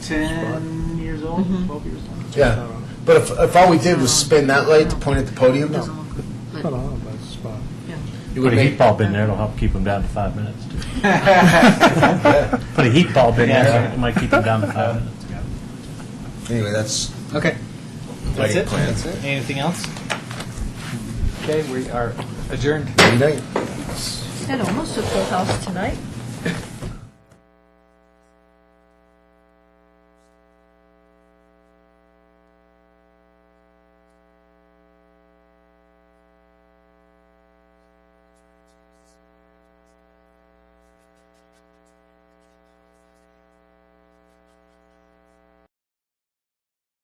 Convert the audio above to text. ten years old, twelve years old. Yeah, but if, if all we did was spin that light to point at the podium, It's not on that spot. it Put would a heat make, bulb in there, it'll help keep them down to five minutes. Put a heat bulb in there, it might keep them down to five minutes. anyway, that's Okay, that's lighting it. plan. That's it. Anything else? Okay, we are adjourned. Good night. That almost took the house tonight.